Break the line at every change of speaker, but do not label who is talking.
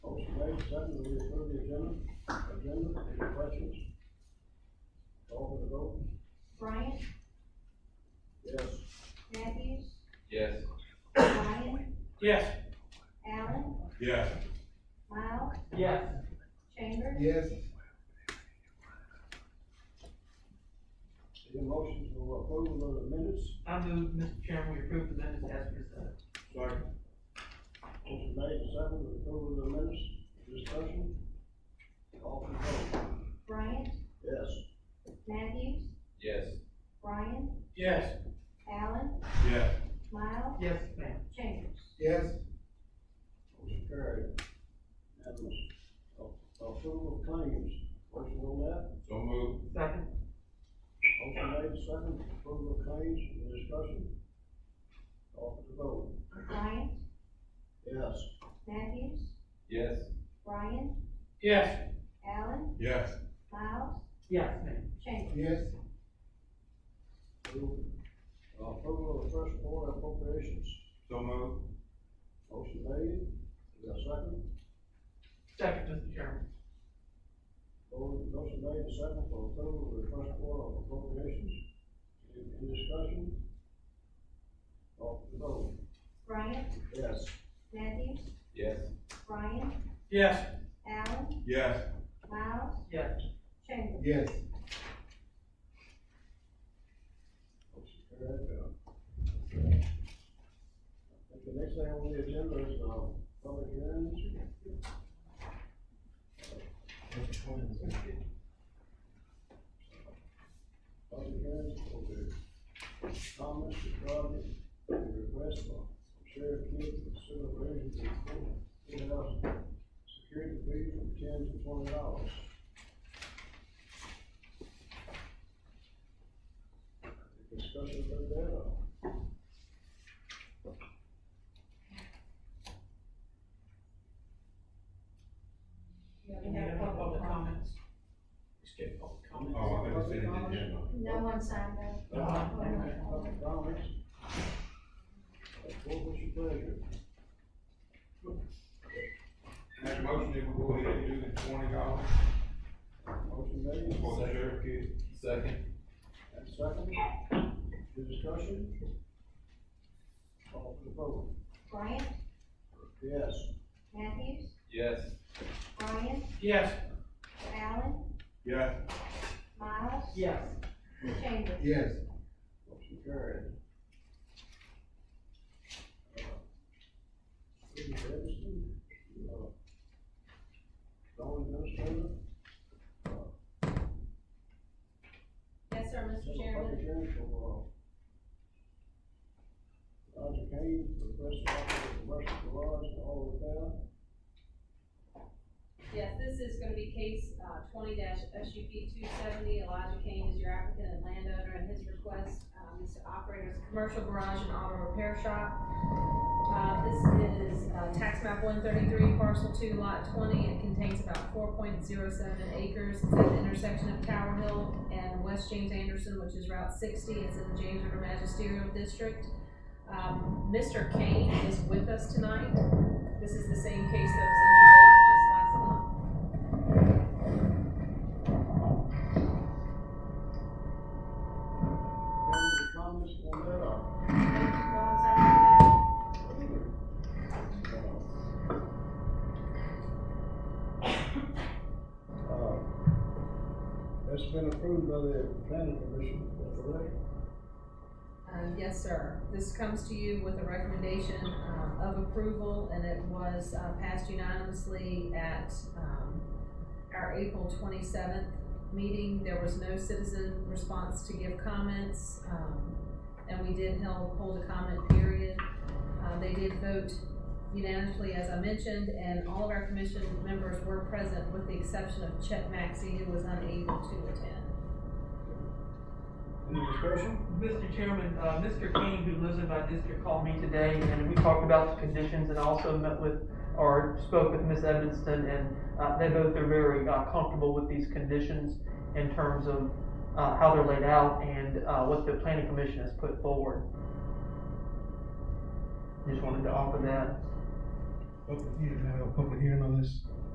Item seven, we approve the agenda, agenda, any questions? Call for the vote.
Bryant,
Yes.
Matthews,
Yes.
Ryan,
Yes.
Allen,
Yes.
Miles,
Yes.
Chambers,
Yes.
Any motion to approve of the minutes?
I move, Mr. Chairman, we approve the minutes as presented.
Sorry. Motion made and seconded, approve of the minutes, discussion? Call for the vote.
Bryant,
Yes.
Matthews,
Yes.
Ryan,
Yes.
Allen,
Yes.
Miles,
Yes, ma'am.
Chambers.
Yes.
Motion carried. Unanimous. A- Approval of claims, motion on that?
So moved.
Second.
Motion made, second, approval of claims, any discussion? Call for the vote.
Bryant,
Yes.
Matthews,
Yes.
Ryan,
Yes.
Allen,
Yes.
Miles,
Yes, ma'am.
Chambers.
Yes.
Approval Uh, approval of first quarter appropriations,
So moved.
motion made, is there a second?
Second, Mr. Chairman.
Mo- Motion made, second, for approval of the first quarter of appropriations, any any discussion? Call for the vote.
Bryant,
Yes.
Matthews,
Yes.
Ryan,
Yes.
Allen,
Yes.
Miles,
Yes.
Chambers.
Yes.
Motion carried. I think the next thing on the agenda is, uh, public hearings. Public hearings for the comments regarding the request for Sheriff Kent to consider raising the courthouse security fee from ten to twenty dollars. Discussion about that, or?
Any other public comments? Skip public comments.
Oh, I didn't see it yet.
No one signed up.
Public comments? What was your pleasure?
Make a motion that we go ahead and do the twenty dollars
Motion made,
for the sheriff kid. Second.
and second, the discussion? Call for the vote.
Bryant,
Yes.
Matthews,
Yes.
Ryan,
Yes.
Allen,
Yes.
Miles,
Yes.
Chambers.
Yes.
Motion carried. Uh, City Livingston, uh, Don Administrator,
Yes, sir, Mr.
Central Public
Chairman.
Hearing for, uh, Roger Kane, request to operate the commercial garage in all of town.
Yes, this is gonna be case, uh, twenty SUP two seventy, Elijah Kane is your applicant and landowner, and his request, um, is to operate as a commercial garage and auto repair shop. Uh, this is, uh, tax map one thirty-three, parcel two, lot twenty, it contains about four point zero seven acres, it's at the intersection of Tower Hill and West James Anderson, which is Route sixty, it's in the James River Magisterial District. Um, Mr. Kane is with us tonight, this is the same case that was introduced just last month.
Any comments on that, or?
Uh,
Uh, That's been approved by the planning commission, correct?
Um, yes, sir. This comes to you with a recommendation, uh, of approval, and it was, uh, passed unanimously at, um, our April twenty-seventh meeting. There was no citizen response to give comments, um, and we did held, hold a comment period. Uh, they did vote unanimously, as I mentioned, and all of our commission members were present, with the exception of Chet Maxey, who was unable to attend.
Any discussion?
Mr. Chairman, uh, Mr. King, who lives in my district, called me today, and we talked about the conditions, and also met with, or spoke with Ms. Evanston, and, uh, they both are very, uh, comfortable with these conditions in terms of, uh, how they're laid out and, uh, what the planning commission has put forward. Just wanted to offer that.
Oh, Public hearing, now we have a public hearing on this.